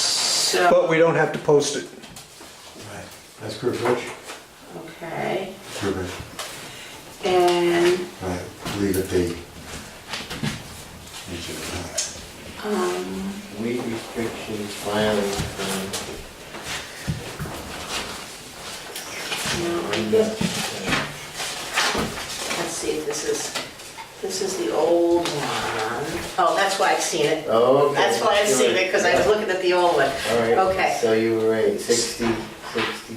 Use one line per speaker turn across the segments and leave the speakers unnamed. so,
But we don't have to post it.
Right. That's Curve Ridge?
okay,
Curve Ridge.
and,
Right, leave it be. Leave it
um,
Weed restrictions, filing, um,
no, I guess-
unmet,
let's see, this is, this is the old one. Oh, that's why I've seen it.
uh, Okay.
That's why I've seen it, because I was looking at the old one.
All right.
Okay.
So you were right, 60, 60,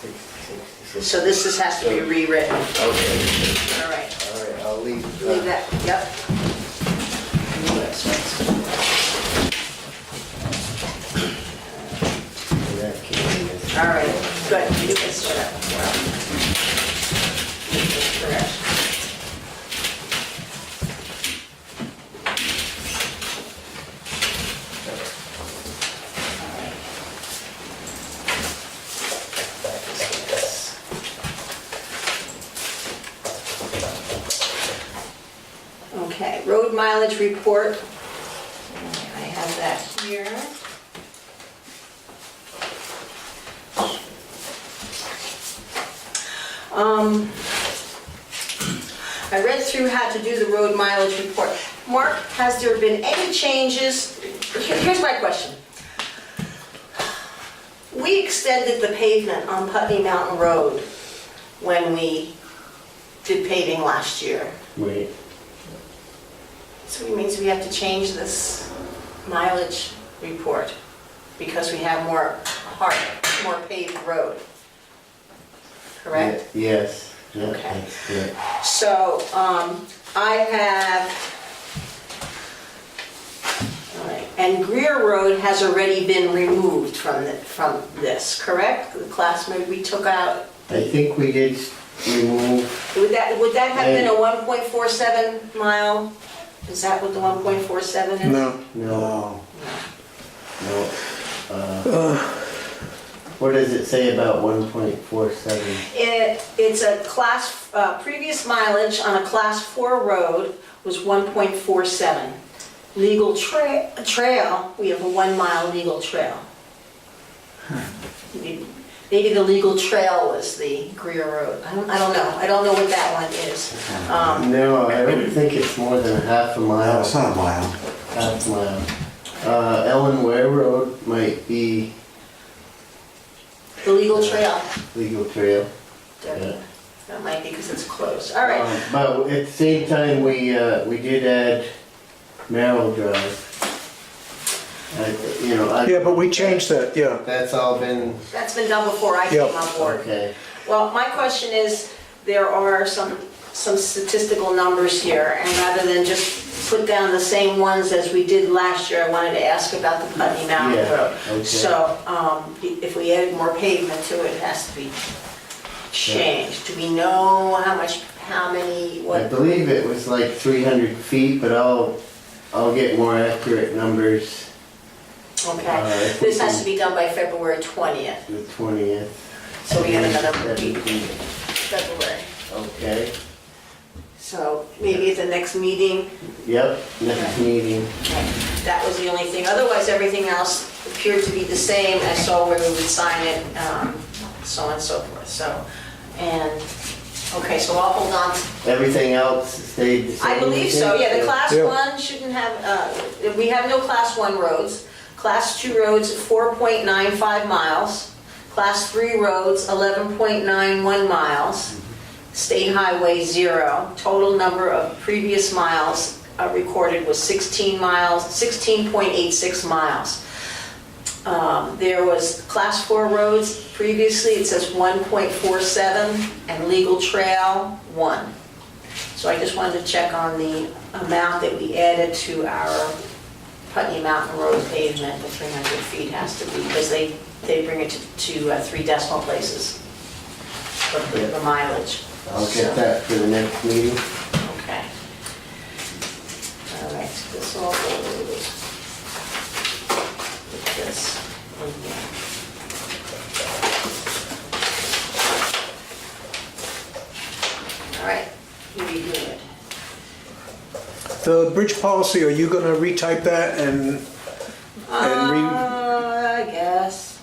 60, 60.
So this is, has to be rewritten, all
Okay,
right.
all right, I'll leave.
Leave that, yep. That's
That can be this.
right. All right, good, you can sit up. Correct. Okay, road mileage report. I have that here. Um, I read through how to do the road mileage report. Mark, has there been any changes? Here- Here's my question. We extended the pavement on Putney Mountain Road when we did paving last year.
Wait,
So it means we have to change this mileage report because we have more hard, more paved road. Correct?
Ye- Yes. Yeah,
Okay.
that's good.
So, um, I have, all right, and Greer Road has already been removed from the, from this, correct? The class maybe we took out,
I think we did s- remove,
would that, would that have been a one point four seven mile? Is that what the one point four seven is?
No.
no,
No,
no. uh, What does it say about 1.47?
It, it's a class, uh, previous mileage on a class four road was 1.47. Legal tra- trail, we have a one mile legal trail. Maybe maybe the legal trail was the Greer Road. I don't, I don't know. I don't know what that one is. Um,
No, I don't think it's more than a half a
no,
mile.
it's not a mile.
Half mile. Uh, Ellen Ware Road might be
The legal trail.
legal trail. Yeah.
That might be because it's closed. All right.
Um, But at the same time, we, uh, we did add Merrill Drive. I- You know, I,
Yeah, but we changed that, yeah.
that's all been,
That's been done before I came
Yep.
on board.
okay.
Well, my question is, there are some, some statistical numbers here, and rather than just put down the same ones as we did last year, I wanted to ask about the Putney Mountain
Yeah,
Road.
okay.
So, um, if we added more pavement to it, it has to be changed. Do we know how much, how many,
I
what?
believe it was like three hundred feet, but I'll, I'll get more accurate numbers Uh,
Okay,
if we
this has
can-
to be done by February 20th,
the twentieth.
so we have another week, February.
Okay,
So maybe at the next meeting,
yep, next meeting.
That was the only thing. Otherwise, everything else appeared to be the same. I saw where we would sign it, um, so on and so forth, so. And, okay, so I'll hold on. to-
Everything else stayed the same?
I believe so, yeah, the class
Yeah.
one shouldn't have, uh, we have no class one roads. Class two roads, 4.95 miles. Class three roads, 11.91 miles. State highway, zero. Total number of previous miles uh, recorded was 16 miles, 16.86 miles. Um, There was class four roads, previously it says 1.47, and legal trail, one. So I just wanted to check on the amount that we added to our Putney Mountain Road pavement, the 300 feet has to be, because they, they bring it to- to uh, three decimal places for the the mileage.
I'll
So-
get that for the next meeting.
Okay. All right, so this all goes with this. in here. All right, you redo it.
The bridge policy, are you gonna retype that and
Uh,